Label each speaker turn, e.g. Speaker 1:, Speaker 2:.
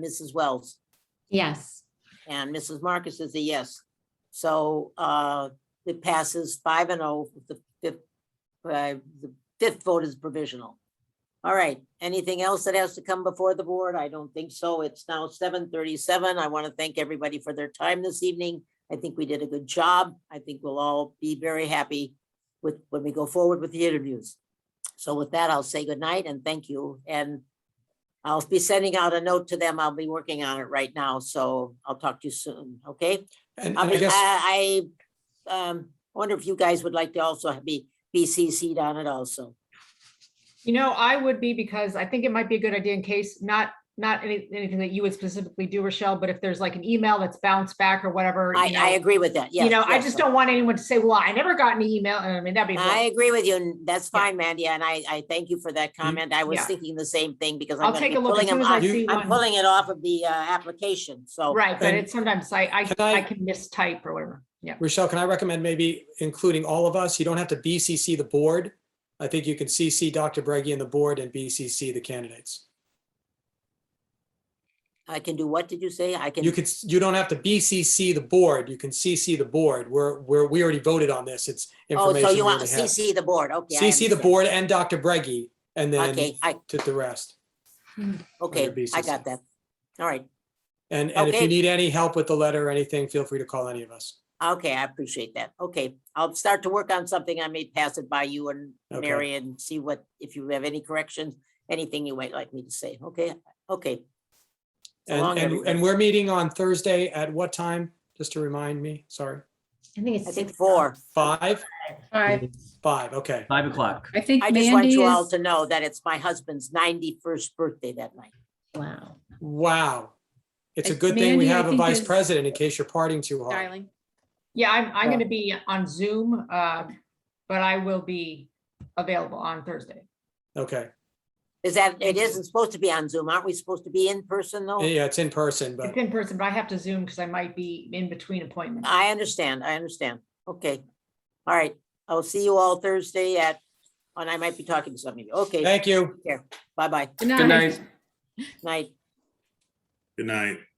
Speaker 1: Mrs. Wells?
Speaker 2: Yes.
Speaker 1: And Mrs. Marcus is a yes. So uh, it passes five and oh, with the fifth, uh, the fifth vote is provisional. All right, anything else that has to come before the board? I don't think so. It's now seven thirty-seven. I want to thank everybody for their time this evening. I think we did a good job. I think we'll all be very happy with, when we go forward with the interviews. So with that, I'll say good night and thank you. And I'll be sending out a note to them. I'll be working on it right now, so I'll talk to you soon, okay? I
Speaker 3: And and I
Speaker 1: mean,
Speaker 3: guess,
Speaker 1: I, I, um, wonder if you guys would like to also be, be CC'd on it also.
Speaker 4: You know, I would be because I think it might be a good idea in case, not, not any, anything that you would specifically do, Rochelle, but if there's like an email that's bounced back or whatever.
Speaker 1: I,
Speaker 4: you
Speaker 1: I
Speaker 4: know,
Speaker 1: agree with that, yes.
Speaker 4: You know, I
Speaker 1: yes, yes.
Speaker 4: just don't want anyone to say, well, I never got an email. and I mean, that'd be,
Speaker 1: I
Speaker 4: I,
Speaker 1: agree with you, and that's
Speaker 4: Yeah. Mm-hmm.
Speaker 1: fine, Mandy, and I, I thank you for that comment. I was
Speaker 4: yeah.
Speaker 1: thinking the same thing because I'm
Speaker 4: I'll
Speaker 1: gonna
Speaker 4: take
Speaker 1: be
Speaker 4: a look
Speaker 1: pulling
Speaker 4: as soon
Speaker 1: them
Speaker 4: as I
Speaker 1: out.
Speaker 4: see
Speaker 1: I'm
Speaker 4: one.
Speaker 1: pulling it off of the, uh, application, so.
Speaker 4: Right, but
Speaker 3: And-
Speaker 4: it's sometimes I, I,
Speaker 3: Can I-
Speaker 4: I can mistype or whatever. Yeah.
Speaker 3: Rochelle, can I recommend maybe including all of us? You don't have to BCC the board. I think you can CC Dr. Breggy and the board and BCC the candidates.
Speaker 1: I can do, what did you say? I can,
Speaker 3: You could, you don't have to BCC the board. You can CC the board. We're, we're, we already voted on this. It's
Speaker 1: oh,
Speaker 3: information.
Speaker 1: so you
Speaker 3: we
Speaker 1: want
Speaker 3: already have.
Speaker 1: CC the board, okay. I
Speaker 3: CC the
Speaker 1: understand.
Speaker 3: board and Dr. Breggy and then
Speaker 1: Okay, I,
Speaker 3: to the rest. under
Speaker 1: okay, I
Speaker 3: BCC.
Speaker 1: got that. All right,
Speaker 3: And, and if
Speaker 1: Okay.
Speaker 3: you need any help with the letter or anything, feel free to call any of us.
Speaker 1: okay, I appreciate that. Okay, I'll start to work on something. I may pass it by you and
Speaker 3: Okay.
Speaker 1: Mary and see what, if you have any corrections, anything you might like me to say, okay? Okay, So long,
Speaker 3: And, and,
Speaker 1: everybody.
Speaker 3: and we're meeting on Thursday at what time? Just to remind me, sorry.
Speaker 2: I think
Speaker 1: I
Speaker 2: it's
Speaker 1: think
Speaker 2: six.
Speaker 1: four.
Speaker 3: Five,
Speaker 2: Five.
Speaker 3: five, okay.
Speaker 5: Five o'clock.
Speaker 2: I think
Speaker 1: I just want
Speaker 2: Mandy
Speaker 1: you all
Speaker 2: is.
Speaker 1: to know that it's my husband's ninety-first birthday that night.
Speaker 2: Wow.
Speaker 3: Wow. It's a
Speaker 2: I-
Speaker 3: good thing we
Speaker 2: Mandy, I
Speaker 3: have a
Speaker 2: think
Speaker 3: vice
Speaker 2: is-
Speaker 3: president in case you're partying too hard.
Speaker 6: Darling.
Speaker 4: Yeah, I'm, I'm
Speaker 1: Yeah.
Speaker 4: gonna be on Zoom, uh, but I will be available on Thursday.
Speaker 3: Okay.
Speaker 1: Is that, it isn't supposed to be on Zoom. Aren't we supposed to be in person though?
Speaker 3: Yeah, it's in person,
Speaker 4: It's
Speaker 3: but
Speaker 4: in person, but I have to Zoom because I might be in between appointments.
Speaker 1: I understand, I understand. Okay. All right, I'll see you all Thursday at, and I might be talking to some of you. Okay,
Speaker 3: thank you.
Speaker 1: bye-bye,
Speaker 6: Good
Speaker 5: Good night.
Speaker 1: night.
Speaker 7: Good night.